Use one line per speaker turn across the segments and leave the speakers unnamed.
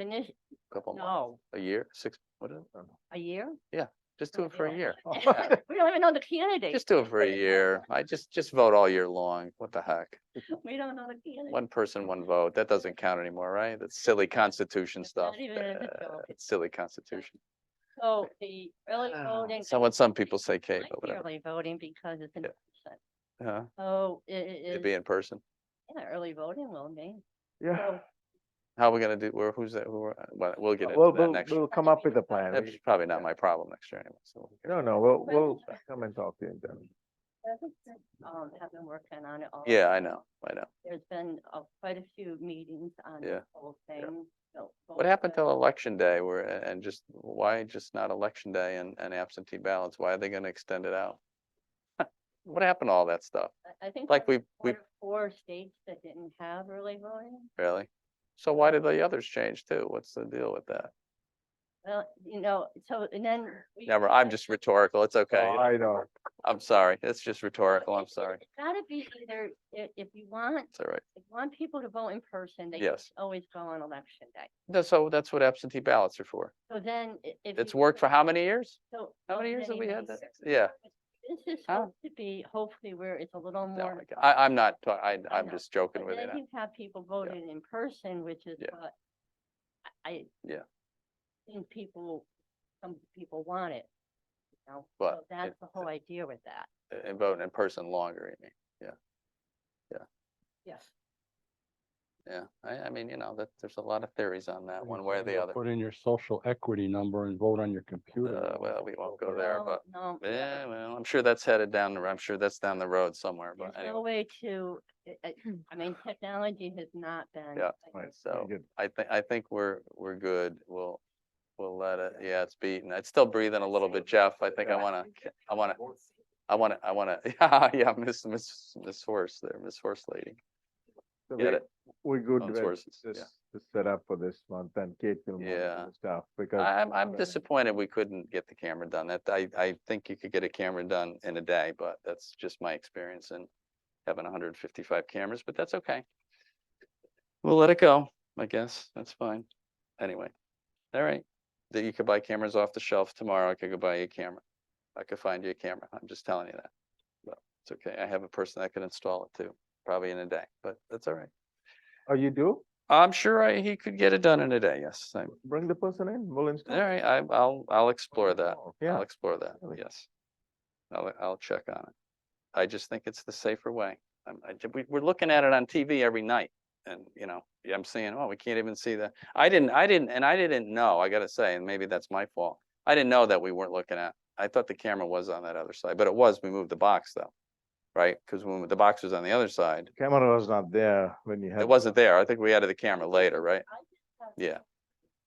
finish,
couple months,
no,
a year, six, what is it? I don't know.
a year?
Just do it for a
Yeah.
year.
We don't even know the candidate.
Just do it for a year. I just, just vote all year long. What the heck?
We don't know the candidate.
One person, one vote. That doesn't count anymore, right? That's silly constitution
It's not
stuff.
even a good
Uh,
joke.
It's silly constitution.
So the early
Ah,
voting.
So what some people say, Kate,
like
but
the
whatever.
Early voting because it's in.
Yeah. Huh?
Oh, it it
It'd
is,
be in person.
yeah, early voting will be.
Yeah,
So
How are we gonna do, where, who's that, who, are- well, we'll get
we'll,
into that
we'll,
next year.
we'll come up with a plan.
That's
We-
probably not my problem next year anyway, so.
No, no, we'll,
Well,
we'll come and talk to you then.
um, have been working on it all.
Yeah, I know, I know.
There's been uh, quite a few meetings on
Yeah.
the whole thing. so
What
both
happened
sides-
till election day where, a- and just, why just not election day and, and absentee ballots? Why are they gonna extend it out? What happened to all that stuff?
I- I think.
Like
there were
we, we
one or Four states that didn't have early voting.
barely. So why did the others change too? What's the deal with that?
Well, you know, so and then. we-
Never, I'm just rhetorical. It's
Oh,
okay. you know.
I know,
I'm sorry. It's just rhetorical. I'm
It's-
sorry.
It's gotta be either, i- if you want,
It's all right.
if you want people to vote in person, they can
Yes.
always go on election day.
That's, so that's what absentee ballots are for.
So then i- if.
It's
you
worked for
put-
how many years?
so
how many years have we had
years.
that? Yeah.
This is
Huh?
supposed to be hopefully where it's a little
No,
more.
I- Oh I, I'm not, ta-
I
I, I'm
know,
just joking
But
with you
then
now.
you have people voting in person, which is
Yeah.
what I- I.
Yeah.
Think people, some people want it, you know,
But
so that's
it-
the whole idea with that.
a- And voting in person longer, you mean?
Yes.
Yeah, I, I mean, you know, that, there's a lot of theories on that, one way or the other.
Put in your social equity number and vote on your
Uh,
computer.
well, we won't go there, but,
No. no,
yeah, well, I'm sure that's headed down, the. I'm sure that's down the road somewhere,
There's
but
no way
anyway.
to, I- I I mean, technology has not been.
Yeah,
like,
right,
So,
good.
I think, I think we're, we're good, we'll, we'll let it, yeah, it's beaten, it's still breathing a little bit, Jeff, I think I wanna, I wanna, I wanna, I wanna, yeah, yeah, Miss, Miss, Miss Horse there, Miss Horse Lady,
So
get
we-
it,
We're good
Those
with
horses, yeah.
this, the setup for this month and Kate will
Yeah.
monitor the stuff because.
I'm, I'm
Right.
disappointed we couldn't get the camera done, that, I, I think you could get a camera done in a day, but that's just my experience in having hundred and fifty-five cameras, but that's okay. We'll let it go, I guess, that's fine, anyway, all right, that you could buy cameras off the shelf tomorrow, I could go buy you a camera. I could find you a camera, I'm just telling you that, but it's okay, I have a person that could install it too, probably in a day, but that's all right.
Oh, you do?
I'm sure I, he could get it done in a day, yes, I'm,
Bring the person in, we'll
all
install.
right, I, I'll, I'll explore that.
Oh,
I'll
Yeah,
explore that,
Really.
yes. I'll, I'll check on it. I just think it's the safer way. I'm, I, ju- we, we're looking at it on TV every night and, you know, yeah, I'm saying, oh, we can't even see that. I didn't, I didn't, and I didn't know, I gotta say, and maybe that's my fault. I didn't know that we weren't looking at, I thought the camera was on that other side, but it was, we moved the box though. Right? Cause when the box was on the other side,
camera was not there when you had.
it wasn't there. I think we added the camera later, right?
I just have
Yeah,
to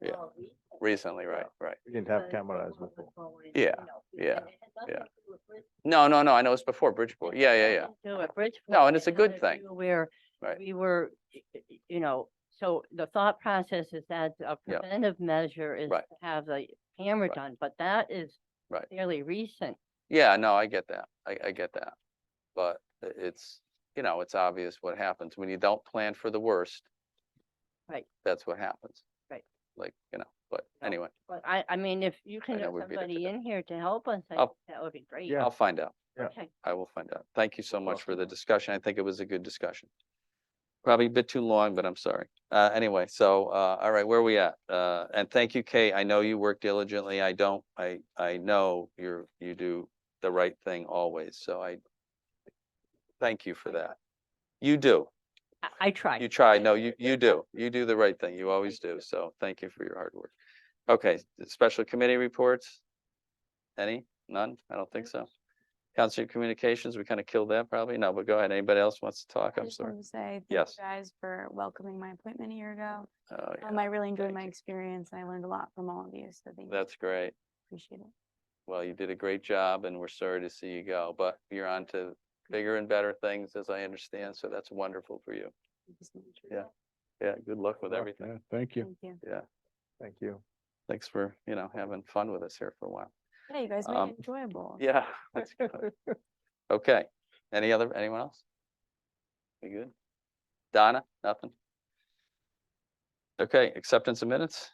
yeah.
follow these things
Recently, right, right.
We didn't have
because
cameras
people
before.
look forward,
Yeah,
you know,
yeah,
and it has nothing
yeah.
to do with Bridge-
No, no, no, I know it's before Bridgeport. Yeah, yeah, yeah.
nothing to do with Bridgeport,
No, and
it
it's a
had
good
to
thing.
do Where
Right.
we were, y- y- y- you know, so the thought process is that a
Yeah.
preventive measure is
Right.
to have the camera
Right.
done, but that is
Right.
fairly recent.
Yeah, no, I get that. I, I get that. But i- it's, you know, it's obvious what happens when you don't plan for the worst.
Right.
That's what happens.
Right.
Like, you know, but
No.
anyway,
But I, I mean, if you can
know
get
we beat it to Oh.
somebody
death.
in here to help us, I
I'll-
think that would be great.
Yeah.
I'll find out.
Yeah.
Okay.
I will find out. Thank you so much for the discussion. I think it was a good discussion. Probably a bit too long, but I'm sorry. Uh, anyway, so, uh, all right, where are we at? Uh, and thank you, Kate. I know you work diligently. I don't, I, I know you're, you do the right thing always, so I thank you for that. You do.
I, I tried.
You try. No, you, you do. You do the right thing. You always do. So thank you for your hard work. Okay, the special committee reports? Any? None? I don't think so. Council of Communications, we kind of killed that probably. No, but go ahead. Anybody else wants to talk?
I
I'm
just
sorry.
wanted to say, thank you
Yes.
guys for welcoming my appointment a year ago.
Oh, yeah.
Um, I really enjoyed
thank
my
you.
experience and I learned a lot from all of you, so thank you.
That's great.
Appreciate it.
Well, you did a great job and we're sorry to see you go, but you're on to bigger and better things as I understand. So that's wonderful for you.
Thank you so much.
Yeah. Yeah, good luck with everything.
Yeah, Thank you.
Thank you.
Thank you.
Thanks for, you know, having fun with us here for a while.
Yeah, you guys
Um,
made it enjoyable.
Yeah, that's good. Okay, any other, anyone else? We good? Donna, nothing? Okay, acceptance of minutes?